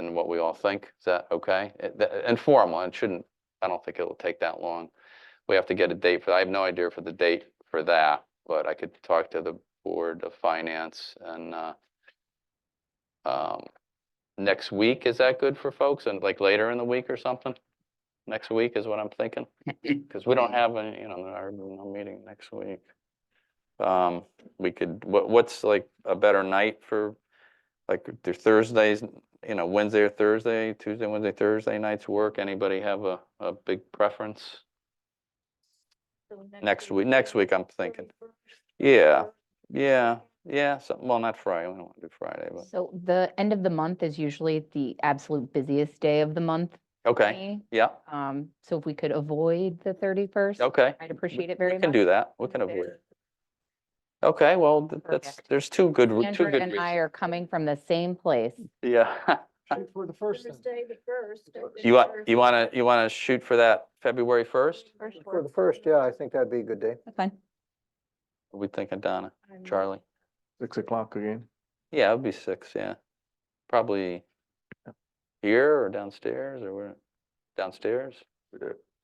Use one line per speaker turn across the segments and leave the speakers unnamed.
than what we all think. Is that okay? It- the- eh, Informal, it shouldn't, I don't think it'll take that long. We have to get a date for, I have no idea for the date for that, but I could talk to the Board of Finance and, uh, um, next week, is that good for folks? And like later in the week or something? Next week is what I'm thinking, because we don't have any, you know, our, no meeting next week. Um, we could, what, what's like a better night for, like, there's Thursdays, you know, Wednesday or Thursday, Tuesday, Wednesday, Thursday nights work? Anybody have a, a big preference?
So
Next week, next week, I'm thinking.
31st,
Yeah, yeah, yeah, something, well, not Friday, we don't want to do Friday, but,
So the end of the month is usually the absolute busiest day of the month. for
okay,
me.
yeah,
Um, So if we could avoid the 31st,
okay.
I'd appreciate it
We
very
can
much.
do that, we can
Wednesday.
avoid it. Okay, well, th- that's,
Perfect.
there's two good, re- two
Andrew
good
and I
reasons.
are coming from the same place.
Yeah.
Shoot for the first then.
Thursday, the first. or the
You want,
first-
you want to, you want to shoot for that February 1st?
first
For the
works
first,
me.
yeah, I think that'd be a good day.
That's fine.
What we thinking, Donna,
Mm-hmm.
I'm-
Charlie?
Six o'clock again.
Yeah, it'd be six, yeah. Probably here or downstairs or where, downstairs?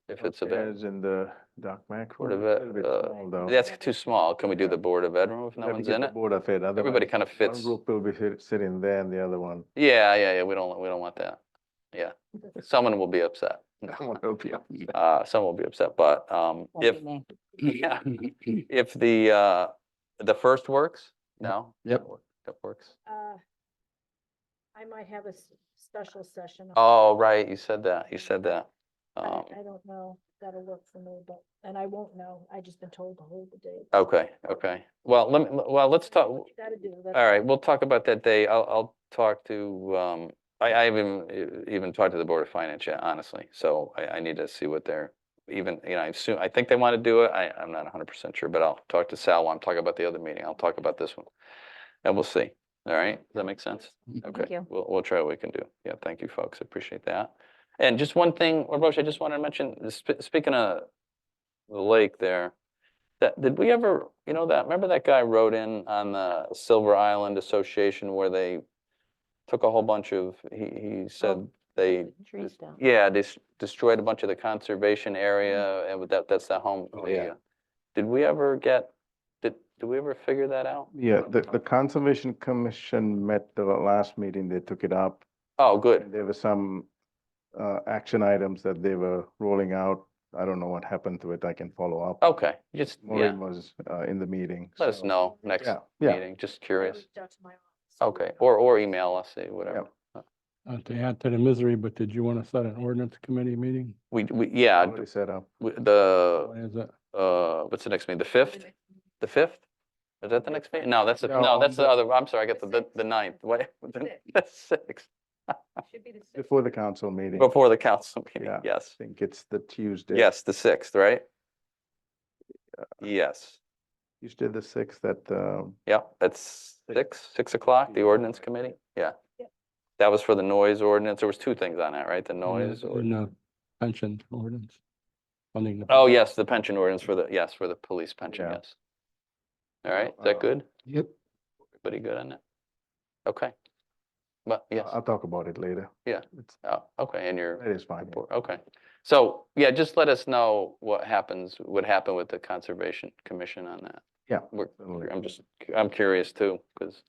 If it's available.
in the Doc Mac.
Board of Ed, uh, that's too small. Can we do
Yeah.
the Board of Ed room if no one's in it?
Board of Ed.
Everybody kind of fits.
will be sitting there and the other one.
Yeah, yeah, yeah, we don't, we don't want that. Yeah. Someone will be upset. Uh, someone will be upset, but, um,
Won't
if,
be me.
yeah, if the, uh, the first works,
Yep.
no?
Yep.
That wor- That works.
uh, I might have a s- special session. on-
Oh, right, you said that, you said that.
I
Um,
I don't know, that'll work for me, but, and I won't know, I just been told to hold the date.
okay, okay. Well, let me, well, Oh, let's
That's
talk,
what you Gotta do. that's
All right, we'll talk about that day. I'll, I'll talk to, um, I, I haven't e- even talked to the Board of Finance yet, honestly. So I, I need to see what they're even, you know, I assume, I think they want to do it. I, I'm not hundred percent sure, but I'll talk to Sal while I'm talking about the other meeting. I'll talk about this one. And we'll see. All right? Does that make sense? Okay,
you.
we'll, we'll try what we can do. Yeah, thank you, folks. Appreciate that. And just one thing, Roche, I just wanted to mention, sp- speaking of the lake there, that, did we ever, you know, that, remember that guy wrote in on the Silver Island Association where they took a whole bunch of, he, he
Oh.
said they,
The Trees
just-
down.
yeah, they s- destroyed a bunch of the conservation area
Mm-hmm.
and with that, that's the home.
Oh,
the,
yeah.
uh, Did we ever get, did, did we ever figure that out?
Yeah, the, the Conservation Commission met the last meeting, they took it up.
Oh,
and
good.
There were some, uh, action items that they were rolling out. I don't know what happened to it, I can follow up. Oh,
Okay, just, yeah,
Maureen was, uh, in the meeting.
let us
so-
know next
Yeah, yeah,
meeting, just
I
curious.
reached out to my office.
Okay, or, or email us, eh, whatever.
Not to add to the misery, but did you want to set an ordinance committee meeting?
We, we, yeah,
already set
uh,
up.
we- the,
When is it?
uh, what's the next meeting, the fifth? The fifth? Is that the next meeting? No, that's, the
No,
no,
on
that's the
the-
other, I'm sorry, I got the,
The
the- the
sixth.
ninth, what, the
Sixth.
the sixth,
Should be the sixth.
Before the council meeting, I
before the council meeting,
Yeah.
yes.
think it's the Tuesday.
Yes, the sixth, right? Yes,
Tuesday the sixth at, um,
yep, that's six, six o'clock, the
Yeah.
ordinance committee, yeah.
Yep.
That was for the noise ordinance, there was two things on that, right, the
In
noise?
the-
or-
in the pension ordinance. Funding the.
Oh, yes, the pension ordinance for the, yes, for the police pension,
Yeah.
yes. All right, is
uh,
that good?
yep.
Everybody good on that? Okay. But, yes,
I'll talk about it later.
Yeah.
It's-
oh, okay, and your
It is fine.
report, okay. So, yeah, just let us know what happens, what happened with the Conservation Commission on that.
Yeah,
We're,
certainly.
I'm just, cu- I'm curious too, because.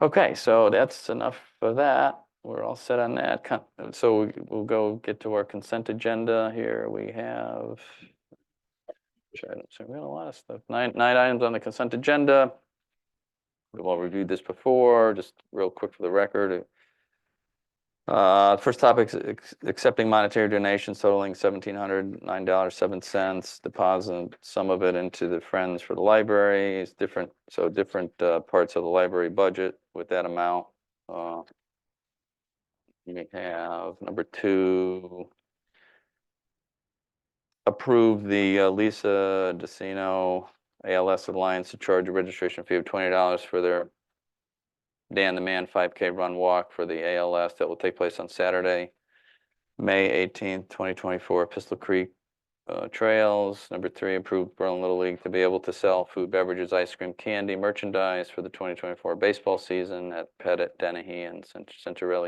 Okay, so that's enough for that. We're all set on that. Con- So we- we'll go get to our consent agenda here. We have. which items? So we got a lot of stuff. Nine, nine items on the consent agenda. We've all reviewed this before, just real quick for the record. Uh, first topic is ex- accepting monetary donations totaling seventeen hundred nine dollars seven cents. Deposit some of it into the Friends for the Library. It's different, so different uh, parts of the library budget with that amount. Uh, We have number two. Approve the uh, Lisa DeCino ALS Alliance to charge a registration fee of twenty dollars for their Dan the Man 5K Run Walk for the ALS that will take place on Saturday, May 18th, 2024, Pistol Creek uh, Trails. Number three, approve Berlin Little League to be able to sell food, beverages, ice cream, candy, merchandise for the 2024 baseball season at Pettit, Dennehy, and Cent- Centerelli